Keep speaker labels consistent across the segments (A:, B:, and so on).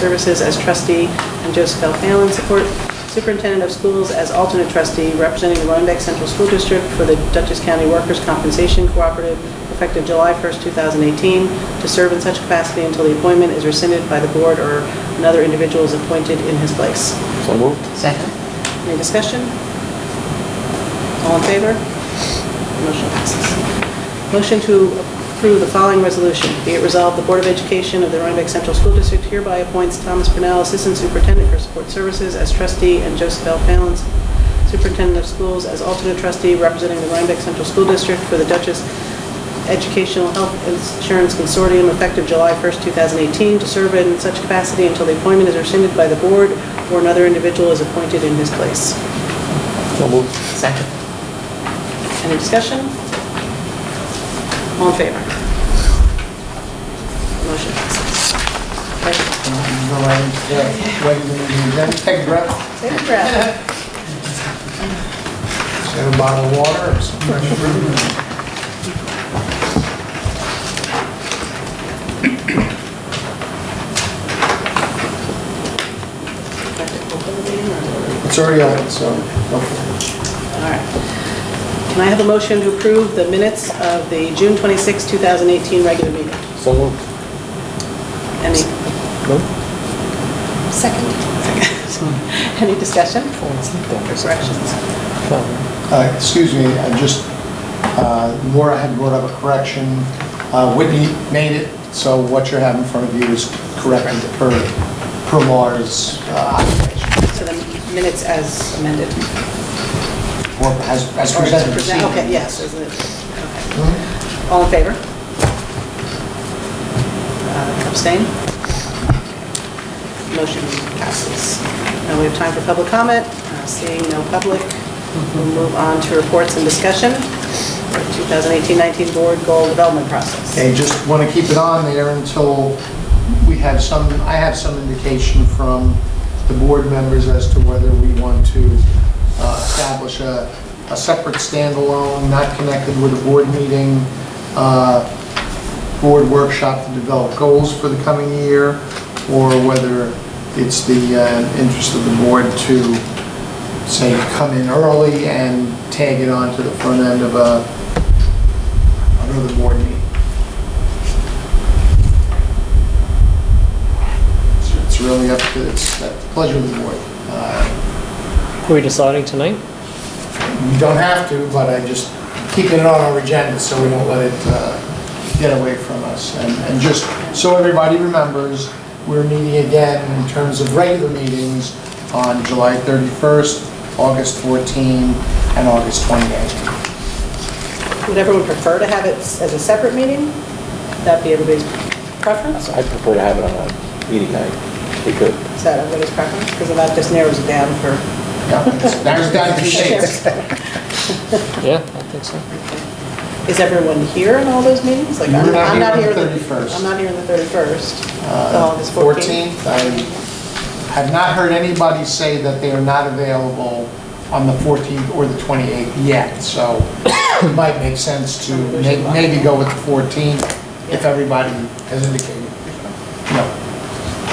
A: Services as trustee, and Joseph L. Fallon, support superintendent of schools as alternate trustee, representing the Rhinebeck Central School District for the Dutchess County Workers' Compensation Cooperative, effective July 1st, 2018, to serve in such capacity until the appointment is rescinded by the board or another individual is appointed in his place.
B: So moved.
C: Second.
A: Any discussion? All in favor? Motion passes. Motion to approve the following resolution. Be it resolved, the Board of Education of the Rhinebeck Central School District hereby appoints Thomas Purnell, Assistant Superintendent for Support Services, as trustee, and Joseph L. Fallon, Superintendent of Schools, as alternate trustee representing the Rhinebeck Central School District for the Dutchess Educational Health Insurance Consortium, effective July 1st, 2018, to serve in such capacity until the appointment is rescinded by the board or another individual is appointed in his place.
B: So moved.
C: Second.
A: Any discussion? All in favor? Motion passes.
D: Go right into that. Right into the agenda. Take a breath,
A: Take a breath.
D: Just have a bottle of water or some fresh fruit. It's already on, so, okay.
A: All right. Can I have a motion to approve the minutes of the June 26, 2018 regular meeting?
B: So moved.
A: Any,
B: No?
C: Second.
A: any discussion?
C: Second.
A: Corrections?
B: No.
D: Uh, Excuse me, I just, uh, Laura had brought up a correction. Uh, Whitney made it, so what you have in front of you is corrected per, per Laura's uh, occupation,
A: So the minutes as amended.
D: or as as
A: Or
D: presented. this
A: present-
D: evening.
A: Okay, yes, isn't it? Okay.
D: Hmm?
A: All in favor? Uh, Abstain? Motion passes. Now we have time for public comment. Uh, Seeing no public, we'll move on to reports and discussion. 2018-19 Board Goal Development Process.
D: Okay, just want to keep it on there until we have some, I have some indication from the board members as to whether we want to uh, establish a, a separate standalone, not connected with a board meeting, uh, board workshop to develop goals for the coming year, or whether it's the uh, interest of the board to, say, come in early and tag it on to the front end of a, another board meeting. So It's really up to, it's at the pleasure of the board. Uh,
B: Are we deciding tonight?
D: You don't have to, but I just keeping it on our agenda so we don't let it uh, get away from us. And and just so everybody remembers, we're meeting again in terms of regular meetings on July 31st, August 14, and August 28th.
A: Would everyone prefer to have it s- as a separate meeting? Would that be everybody's preference?
B: I prefer to have it on a meeting night. We could.
A: Is that everybody's preference? Because that just narrows it down for...
D: Yeah, it's- There's down to shades.
B: Yeah, I think so.
A: Is everyone here in all those meetings? Like, I'm
D: We're not
A: I'm not
D: here
A: here
D: on the
A: the
D: 31st.
A: I'm not here on the Oh, 31st, the
D: Uh,
A: August 14th.
D: 14th. I have not heard anybody say that they are not available on the 14th or the 28th yet, so it might make sense to may- maybe go with the 14th if everybody has indicated, you know,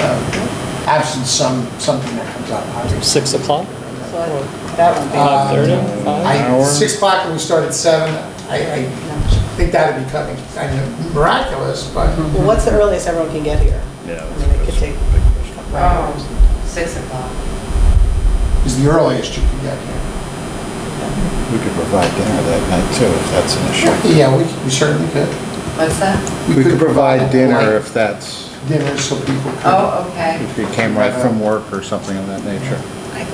D: um, absent some, something that comes up. obviously.
B: Six o'clock?
A: So I don't- That won't be,
D: Uh,
B: Five thirty?
D: I, 6 o'clock and we start at 7, I, I
A: no.
D: think that'd be kind of- kind of miraculous, but
A: Well, what's the earliest everyone can get here?
E: Yeah.
A: I mean, it could take a couple hours.
C: Oh, Six o'clock.
D: it's the earliest you can get here.
E: We could provide dinner that night too, if that's an issue.
D: Yeah, we we certainly could.
C: What's that?
D: We could provide
E: dinner
D: like
E: if that's,
D: Dinner so people could.
C: Oh, okay.
E: if you came right from work or something of that nature.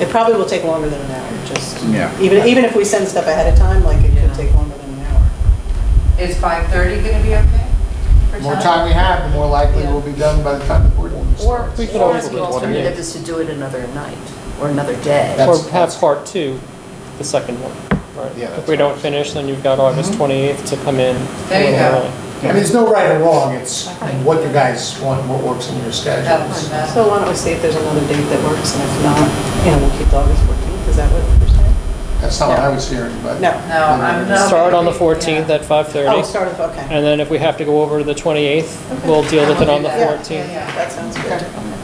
A: It probably will take longer than an hour, just,
E: Yeah.
A: even, even if we send stuff ahead of time, like, it could
C: Yeah.
A: take longer than an hour.
C: Is five thirty gonna be okay? for
D: The more time we have, the more likely we'll be done by the time the board meeting
F: Or,
D: starts.
B: We could
F: or
B: always
F: the
B: do it one
F: alternative
B: day.
F: is to do it another night, or another day.
D: That's-
B: Or have part two, the second one. Right.
E: Yeah,
B: If we don't finish, then you've got
D: Mm-hmm.
B: August 28th to come in. a
C: There you
B: little
C: go.
B: early.
D: I mean, there's no right or wrong, it's what you guys want, what works in your
C: That's
D: schedules.
C: my best.
A: So why don't we see if there's another date that works, and if not, you know, we'll keep the August 14th, is that what you're saying?
D: That's not what I was hearing, but.
A: No.
C: No, I'm not.
B: Start on the
C: Yeah.
B: 14th at
A: Oh,
B: 5:30,
A: start with, okay.
E: Uh,
B: and then if we have to go over to the 28th,
A: Okay.
B: we'll deal with it on the
C: Yeah, yeah,
B: 14th.
C: yeah.
A: That sounds good.